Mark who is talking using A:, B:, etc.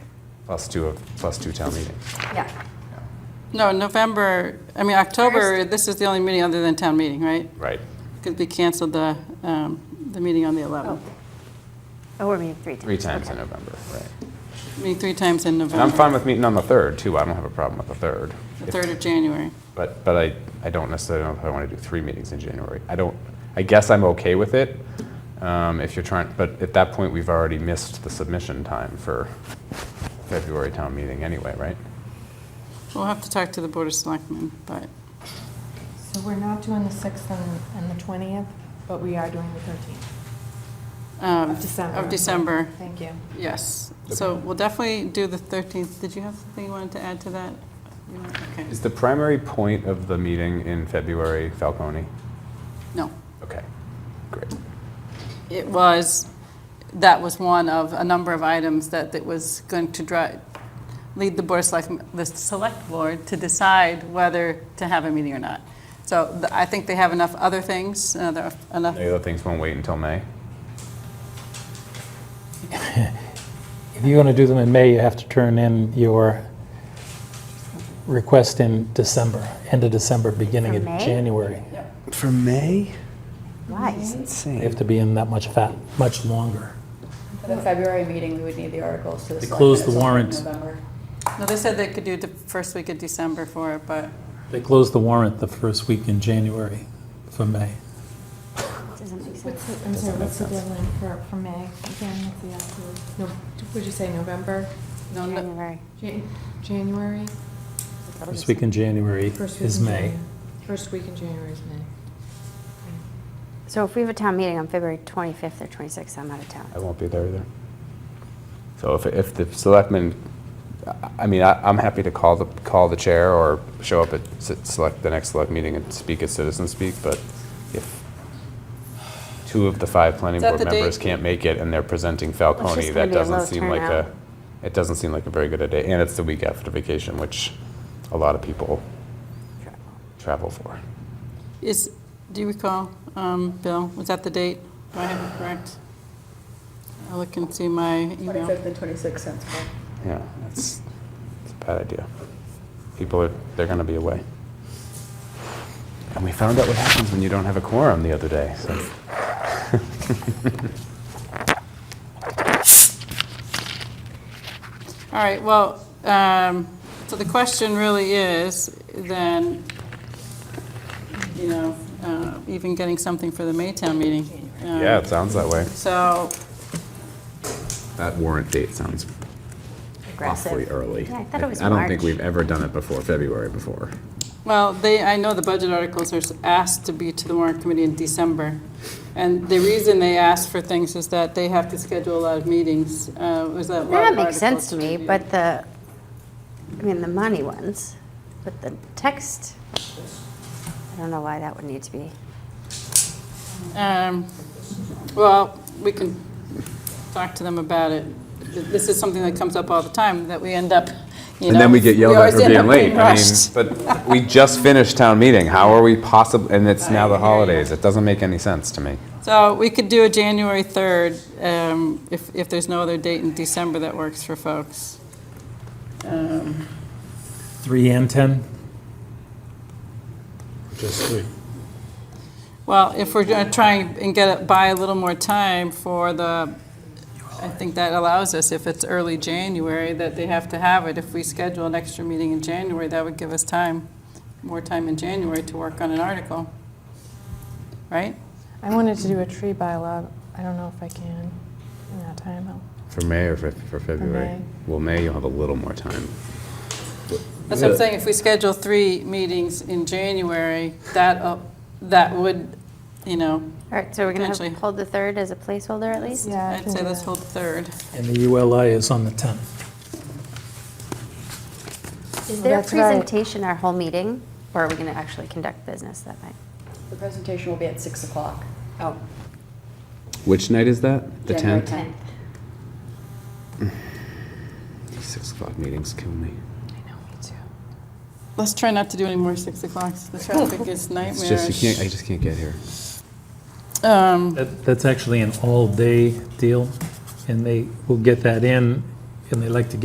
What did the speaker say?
A: plus two, of- plus two town meeting.
B: Yeah.
C: No, November, I mean, October, this is the only meeting other than town meeting, right?
A: Right.
C: Because we canceled the, um, the meeting on the 11th.
B: Oh, we're meeting three times.
A: Three times
B: Okay.
A: in November, right.
C: Meeting three times in
A: And I'm
C: November,
A: fine with meeting on the 3rd, too. I don't have a problem with the 3rd.
C: the 3rd of January.
A: But, but I, I don't necessarily know if I want to do three meetings in January. I don't, I guess I'm okay with it, um, if you're trying, but at that point, we've already missed the submission time for February town meeting anyway, right?
C: We'll have to talk to the Board of Selectmen, but
D: So we're not doing the 6th and, and the 20th, but we are doing the 13th
C: um,
D: of December.
C: Of December,
D: Thank you.
C: yes. So we'll definitely do the 13th. Did you have something you wanted to add to that? You know, Okay.
A: Is the primary point of the meeting in February Falcone?
C: No.
A: Okay, great.
C: It was, that was one of a number of items that it was going to drive, lead the Board of Select, the Select Board to decide whether to have a meeting or not. So th- I think they have enough other things, uh, there are enough,
A: The other things won't wait until May?
E: If you're going to do them in May, you have to turn in your request in December, end of December, beginning
B: For
E: of
B: May?
E: January.
F: For May?
B: Why?
E: They have to be in that much fat, much longer.
G: For the February meeting, we would need the articles to the.
E: They
G: select
E: closed
G: board
E: the
G: in
E: warrant.
G: November.
C: no, they said they could do the first week of December for it, but
E: They close the warrant the first week in January for May.
B: Doesn't make sense.
D: What's the, I'm sorry, what's the deadline for, for May? Again, what's the actual, no, would you say November?
C: no, no,
B: January.
D: Jan- January?
E: First week in January
D: First week
E: is
D: in
E: May.
D: January. First week in January is May.
B: So if we have a town meeting on February 25th or 26th, I'm out of
A: I
B: town.
A: won't be there either. So if, if the selectmen, I- I mean, I, I'm happy to call the, call the chair or show up at s- select, the next select meeting and speak at citizen speak, but if two of the five planning
C: Is that
A: board
C: the date?
A: members can't make it and they're presenting
B: It's
A: Falcone,
B: just gonna
A: that
B: be a
A: doesn't
B: low
A: seem like
B: turnout.
A: a, it doesn't seem like a very good a day. And it's the week after vacation, which a lot of people travel for.
C: is, do you recall, um, Bill, was that the date? Do I have it correct? I'll look and see my email.
G: 25th and 26th sounds good.
A: Yeah, that's, it's a bad idea. People are, they're going to be away. And we found out what happens when you don't have a quorum the other day, so.
C: All right, well, um, so the question really is, then, you know, uh, even getting something for the Maytown meeting. Um,
A: Yeah, it sounds that way.
C: So,
A: That warrant date sounds awfully early.
B: Yeah, I thought it was
A: don't think
B: March.
A: we've ever done it before, February before.
C: well, they, I know the budget articles are s- asked to be to the warrant committee in December. And the reason they ask for things is that they have to schedule a lot of meetings, uh, was that
B: That
C: warrant
B: makes
C: articles
B: sense to me,
C: review.
B: but the, I mean, the money ones, but the text, I don't know why that would need to be.
C: Um, Well, we can talk to them about it. This is something that comes up all the time, that we end up, you know.
A: And then we get yelled at
C: always
A: for
C: end up
A: being late.
C: being
A: I mean,
C: rushed.
A: but we just finished town meeting. How are we possible, and it's now
C: I hear
A: the
C: you.
A: holidays. It doesn't make any sense to me.
C: So we could do a January 3rd, um, if, if there's no other date in December that works for folks.
E: 3 and 10? Just 3.
C: Well, if we're going to try and get, it buy a little more time for the, I think that allows us, if it's early January, that they have to have it. If we schedule an extra meeting in January, that would give us time, more time in January to work on an article, right?
D: I wanted to do a tree bylaw. I don't know if I can in that time. I'll-
A: For May or for, for February?
D: May.
A: Well, May, you'll have a little more time.
C: That's what I'm saying, if we schedule three meetings in January, that, uh, that would, you know,
B: All right, so we're going
C: Potentially.
B: to hold the 3rd as a placeholder at least?
D: Yeah, I
C: I'd
D: can
C: say
D: do
C: let's
D: that.
C: hold the third.
E: And the ULI is on the 10th.
B: Is
D: Well,
B: there a
D: that's right.
B: presentation our whole meeting, or are we going to actually conduct business that night?
G: The presentation will be at 6 o'clock.
B: Oh.
A: Which night is that? The
G: January
A: 10th? Six o'clock meetings kill me.
C: Let's try not to do any more six o'clocks, the traffic is
A: It's just, you can't, I
C: nightmarish.
A: just can't get here.
C: Um,
E: That, that's actually an all-day deal, and they will get that in, and they like to get